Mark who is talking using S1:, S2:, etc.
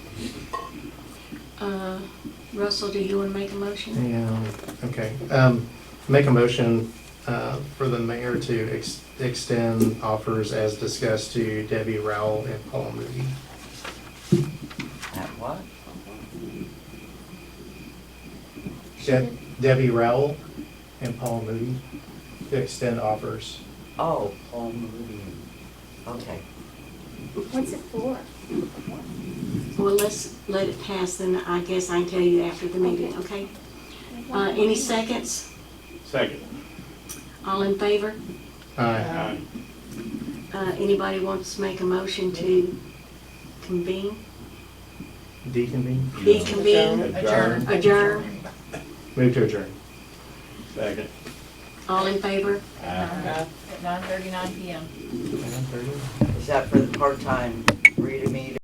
S1: Uh, Russell, do you want to make a motion?
S2: Yeah, okay. Um, Make a motion uh, for the mayor to ex- extend offers as discussed to Debbie Rowell and Paul Moody.
S3: At what?
S2: Deb- Debbie Rowell and Paul Moody to extend offers.
S3: Oh, Paul Meridian. Okay.
S4: What's it for?
S1: Well, let's let it pass, then I guess I can tell you after the meeting, okay? Uh, any seconds?
S5: Second.
S1: All in favor?
S2: Aye.
S5: Aye.
S1: Uh, anybody wants to make a motion to convene?
S2: Deconvene?
S1: Deconvene?
S5: Adjourn.
S1: Adjourn?
S2: Move to adjourn.
S5: Second.
S1: All in favor?
S6: At nine thirty-nine PM.
S3: Is that for the part-time reader meter?